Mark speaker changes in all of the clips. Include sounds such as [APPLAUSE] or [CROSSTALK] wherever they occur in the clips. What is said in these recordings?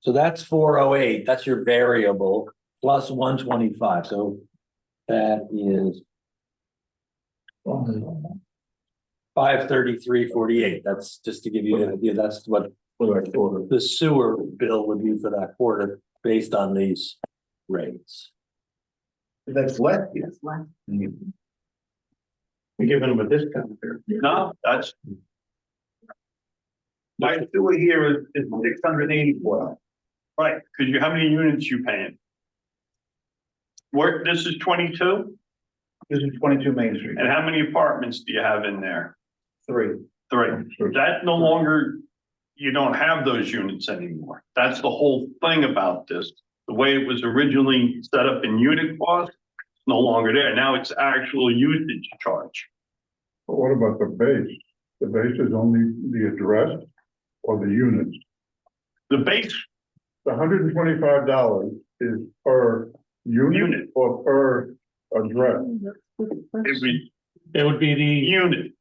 Speaker 1: So that's four oh eight, that's your variable, plus one twenty-five, so that is. Five thirty-three forty-eight, that's just to give you an idea, that's what the sewer bill would be for that quarter, based on these rates.
Speaker 2: That's what?
Speaker 3: That's left.
Speaker 2: You're giving them a discount here.
Speaker 4: No, that's.
Speaker 2: My sewer here is, is six hundred and eighty-four.
Speaker 4: Right, because you, how many units you paying? Work, this is twenty-two,
Speaker 2: This is twenty-two Main Street,
Speaker 4: and how many apartments do you have in there?
Speaker 2: three.
Speaker 4: Three. That no longer, you don't have those units anymore. That's the whole thing about this. The way it was originally set up in unit cost, it's no longer there. Now it's actual usage charge.
Speaker 5: But what about the base? The base is only the address or the units.
Speaker 4: The base
Speaker 5: The hundred and twenty-five dollars is per unit
Speaker 4: unit,
Speaker 5: or per address?
Speaker 4: it was
Speaker 6: It would be the,
Speaker 4: unit,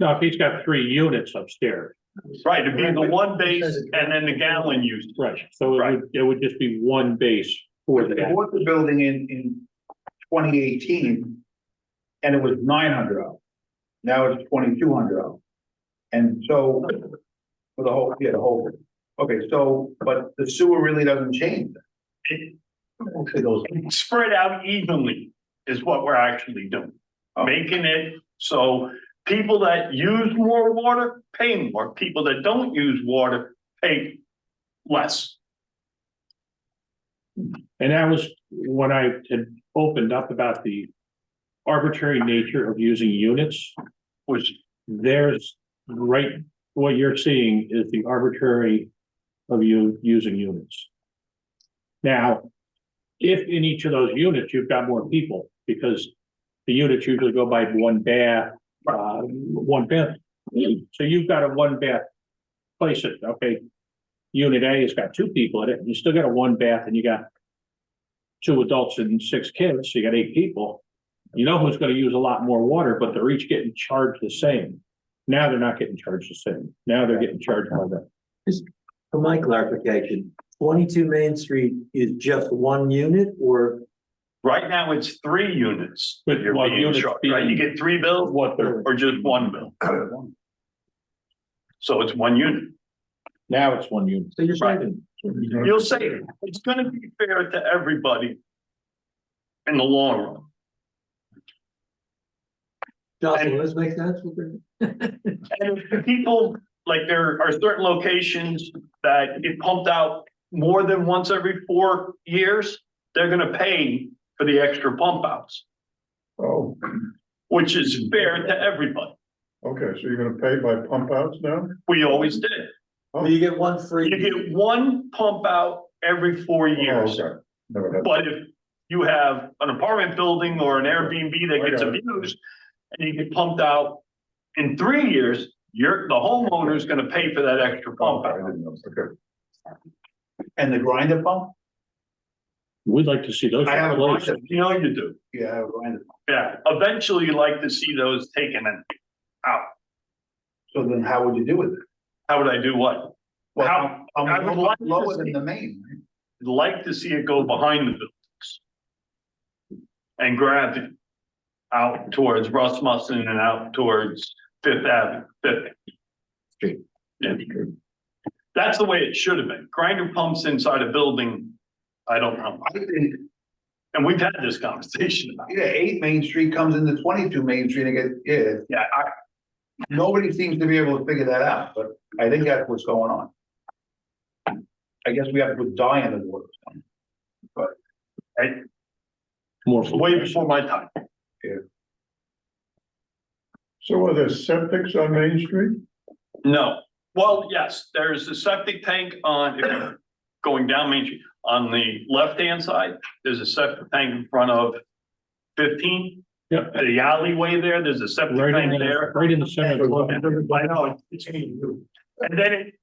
Speaker 6: no, if he's got three units upstairs,
Speaker 4: right, it'd be the one base and then the gallon usage.
Speaker 6: right, so it would, it would just be one base for
Speaker 2: They
Speaker 6: that.
Speaker 2: bought the building in, in twenty eighteen. And it was nine hundred dollars. Now it's twenty-two hundred dollars. And so, for the whole, yeah, the whole, okay, so, but the sewer really doesn't change.
Speaker 4: It-
Speaker 2: Okay, those.
Speaker 4: spread out evenly is what we're actually doing. Making it so people that use more water pay more, people that don't use water pay less.
Speaker 6: And that was when I had opened up about the arbitrary nature of using units,
Speaker 4: Which,
Speaker 6: there's, right, what you're seeing is the arbitrary of you using units. Now, if in each of those units, you've got more people, because the units usually go by one bath, uh, one bath. So you've got a one bath place it, okay? Unit A has got two people in it, and you still got a one bath and you got two adults and six kids, so you got eight people. You know who's gonna use a lot more water, but they're each getting charged the same. Now they're not getting charged the same. Now they're getting charged by the,
Speaker 1: For my clarification, twenty-two Main Street is just one unit, or
Speaker 4: right now, it's three units.
Speaker 6: But
Speaker 4: You're
Speaker 6: one
Speaker 4: being
Speaker 6: unit's
Speaker 4: charged, right?
Speaker 6: being-
Speaker 4: You get three bills
Speaker 6: what they're,
Speaker 4: or just one bill? So it's one unit.
Speaker 6: now it's one unit.
Speaker 1: so you're
Speaker 4: Right.
Speaker 1: saying?
Speaker 4: You'll say it. it's gonna be fair to everybody in the long run.
Speaker 1: Jocelyn, does this make sense? [LAUGHS] What we're-
Speaker 4: And if the people, like there are certain locations that get pumped out more than once every four years, they're gonna pay for the extra pump outs,
Speaker 5: Oh,
Speaker 4: which is fair to everybody.
Speaker 5: okay, so you're gonna pay by pump outs now?
Speaker 4: We always did.
Speaker 1: You get one free.
Speaker 4: Oh. You get one pump out every four years.
Speaker 5: Oh, okay. Never had-
Speaker 4: But if you have an apartment building or an Airbnb that gets
Speaker 5: I got
Speaker 4: abused and you get pumped out in three years, you're, the homeowner's gonna pay for that extra pump
Speaker 5: I
Speaker 4: out.
Speaker 5: didn't know. Okay,
Speaker 2: And the grinder pump?
Speaker 6: We'd like to see those.
Speaker 2: I have a bunch
Speaker 6: replaced.
Speaker 2: of,
Speaker 4: You know you do.
Speaker 2: yeah, I have a grinder. pump.
Speaker 4: Yeah, eventually you like to see those taken and
Speaker 2: So then how would you do with it?
Speaker 4: how would I do what?
Speaker 2: Well,
Speaker 4: How-
Speaker 2: I'm
Speaker 4: I would like to
Speaker 2: Lower
Speaker 4: see-
Speaker 2: than the main, right?
Speaker 4: I'd Like to see it go behind the buildings. And grab it out towards Rasmussen and out towards Fifth Avenue, Fifth.
Speaker 1: Street.
Speaker 4: Yeah. That's the way it should have been. Grinder pumps inside a building, I don't know.
Speaker 2: I think,
Speaker 4: And we've had this conversation about it.
Speaker 2: yeah, eight Main Street comes into twenty-two Main Street and gets, yeah,
Speaker 4: Yeah, I,
Speaker 2: Nobody seems to be able to figure that out, but I think that's what's going on. I guess we have to die in the water.
Speaker 6: More.
Speaker 4: way before my time.
Speaker 5: so are there septics on Main Street?
Speaker 4: No, well, yes, there's a septic tank on, if you're going down Main Street, on the left-hand side, there's a septic tank in front of fifteen,
Speaker 6: Yep.
Speaker 4: the alleyway there, there's a septic
Speaker 6: Right in
Speaker 4: tank
Speaker 6: the,
Speaker 4: there.
Speaker 6: right in the center. of
Speaker 4: I
Speaker 6: the-
Speaker 4: know, it's, and then it,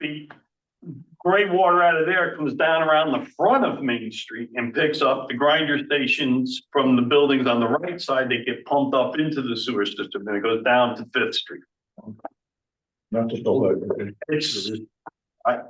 Speaker 4: the gray water out of there comes down around the front of Main Street and picks up the grinder stations from the buildings on the right side, they get pumped up into the sewer system, and it goes down to Fifth Street.
Speaker 5: Not just all that.
Speaker 4: It's